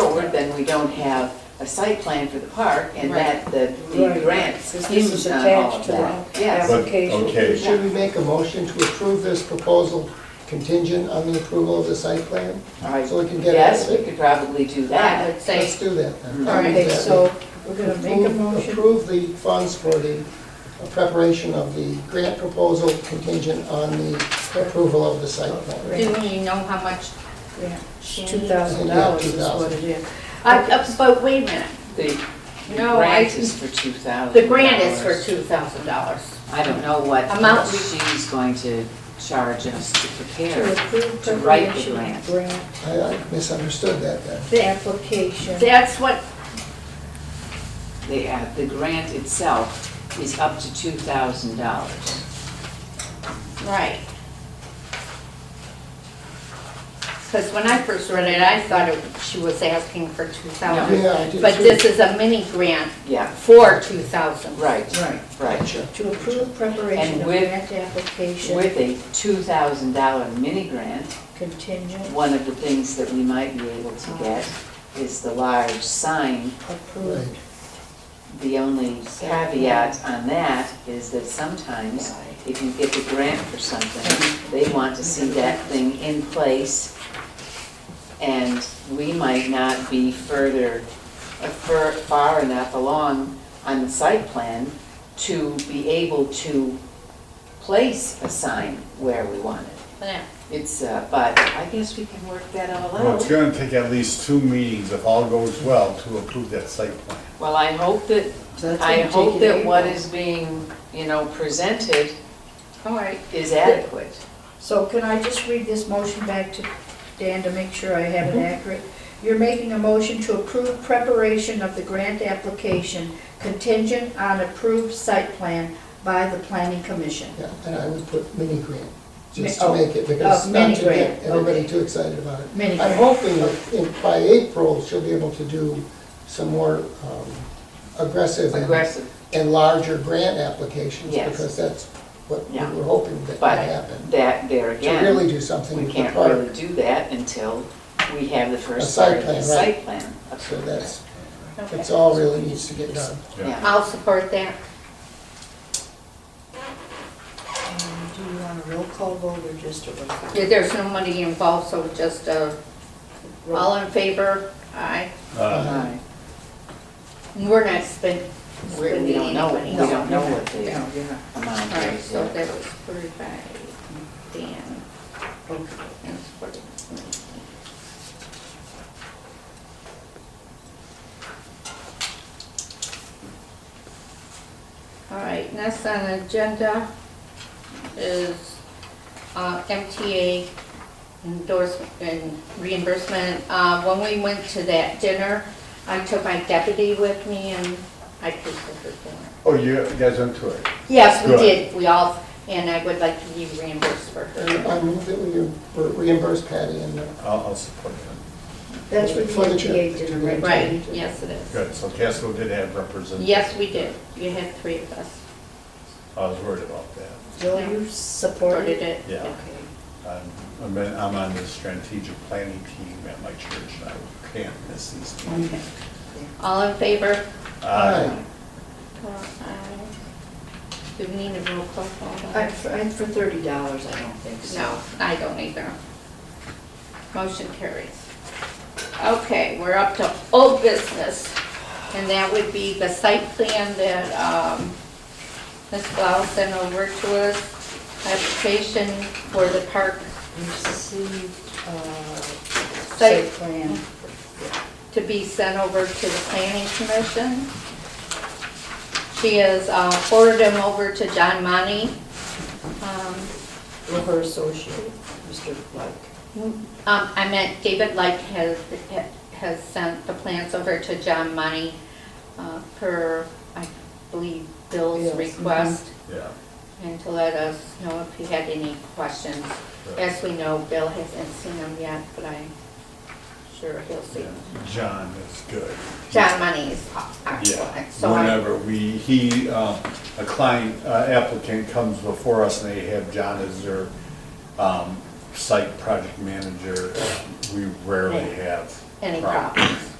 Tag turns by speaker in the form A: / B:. A: forward, then we don't have a site plan for the park, and
B: Right.
A: that, the the
C: Right.
A: grants
C: This
A: hinge
C: is
A: on all
C: attached
A: of
C: to
A: that.
C: the
A: Yes.
D: But,
C: Application.
D: okay,
E: Should we make a motion to approve this proposal contingent on the approval of the site plan?
A: All right.
E: So we can get it.
A: Yes, we could probably do
B: I
A: that.
B: would say,
E: Let's do that then.
B: All right,
C: Okay, so we're gonna make a
E: Approve-
C: motion.
E: Approve the funds for the preparation of the grant proposal contingent on the approval of the site plan.
B: do we know how much?
C: Two thousand dollars is what it is.
B: I- uh, But wait a minute,
A: The the
B: No,
A: grant
B: I-
A: is for two thousand.
B: the grant is for two thousand dollars.
A: I don't know what
B: Amount.
A: she's going to charge us to prepare.
C: To approve
A: To write the
C: preparation of grant
E: I I misunderstood that then.
C: application.
B: That's what,
A: The, uh, the grant itself is up to two thousand dollars.
B: right. Because when I first read it, I thought it- she was asking for two thousand.
E: Yeah, I did
B: But
E: too.
B: this is a mini grant
A: Yeah,
B: for two thousand.
A: right,
C: Right.
A: right.
C: To approve preparation
A: And
C: of
A: with-
C: grant application
A: With a two thousand dollar mini grant,
C: contingent
A: one of the things that we might be able to get is the large sign.
E: Right.
C: approved.
A: The only caveat on that is that sometimes if you get the grant for something, they want to see that thing in place. And we might not be further, uh, fur- far enough along on the site plan to be able to place a sign where we want it.
B: Yeah.
A: It's, uh, but I guess we can work that all
D: well, it's
A: out.
D: gonna take at least two meetings if all goes well to approve that site plan.
A: Well, I hope that,
C: So that's
A: I
C: gonna take
A: hope
C: you to
A: that what
C: April.
A: is being, you know, presented
B: All right.
A: is adequate.
C: So can I just read this motion back to Dan to make sure I have
A: Mm-hmm.
C: it accurate? You're making a motion to approve preparation of the grant application contingent on approved site plan by the planning commission.
E: Yeah, and I would put mini grant, just
C: Mi-
E: to
C: oh,
E: make it, because
C: oh,
E: not to
C: mini grant,
E: get everybody
C: okay.
E: too excited about it.
C: Mini
E: I'm
C: grant,
E: hoping that in- by April, she'll be able to do some more um, aggressive and-
A: Aggressive,
E: and larger grant applications,
A: Yes.
E: because that's what we
A: Yeah.
E: were hoping that would
A: but
E: happen.
A: that, there
E: To really
A: again,
E: do something
A: we
E: with the
A: can't
E: park.
A: really do that until we have the
E: A
A: first
E: site
A: part of the
E: plan,
A: site
E: right.
A: plan.
E: So
A: approved.
E: that's,
C: Okay.
E: that's all really needs to get done.
A: Yeah.
B: I'll support that.
C: And Do you want a roll call vote or just a roll call?
B: Yeah, There's no money involved, so just, uh, all in favor? Aye. Uh-huh.
D: Uh,
A: Right.
B: We're not spending,
A: We we
B: spending
A: don't
B: any
A: know,
B: money.
A: we don't know what the
C: No,
B: All
A: amount
B: right,
A: is.
B: so that
A: yet.
B: was approved by Dan. And supported by me. All right, next on the agenda is uh, MTA endorsement and reimbursement. Uh, When we went to that dinner, I took my deputy with me and I presented the dinner.
D: Oh, you guys went to it?
B: Yes, we
D: Good.
B: did, we all, and I would like to be reimbursed for
E: And
B: her.
E: I move that we reimburse Patty and, uh,
D: I'll, I'll support it.
C: That's what the
E: For the chair.
C: MTA did, right?
B: Right, yes, it is.
D: Good, so Casco did have representatives.
B: Yes, we did, you had three of us
D: I was worried about that.
C: Will you support
B: voted
C: it?
B: it.
D: Yeah.
C: Okay.
D: I'm- I'm, in- I'm on the strategic planning team at my church, and I can't miss these meetings.
B: All in favor?
D: Uh,
E: Aye.
B: Aye. Do we need a roll call? vote on
C: I-
B: that?
C: for- I- For thirty dollars, I don't think so.
B: No, I don't either. Motion carries. Okay, we're up to old business, and that would be the site plan that um, Ms. Blau sent over to us, application for the park
C: Received, uh,
B: Site-
C: site plan.
B: to be sent over to the planning commission. She has uh, forwarded them over to John Money. Um,
C: with her associate, Mr. Black.
B: um, I meant David Light has, has sent the plans over to John Money uh, per, I believe, Bill's
C: Bill's, mhm.
B: request,
D: Yeah.
B: and to let us know if he had any questions. As we know, Bill hasn't seen them yet, but I'm sure he'll see
D: Yeah,
B: them.
D: John is good.
B: John Money is excellent, so
D: Yeah,
B: I,
D: whenever we, he, uh, a client uh, applicant comes before us and they have John as their um, site project manager, we rarely have
B: any problems.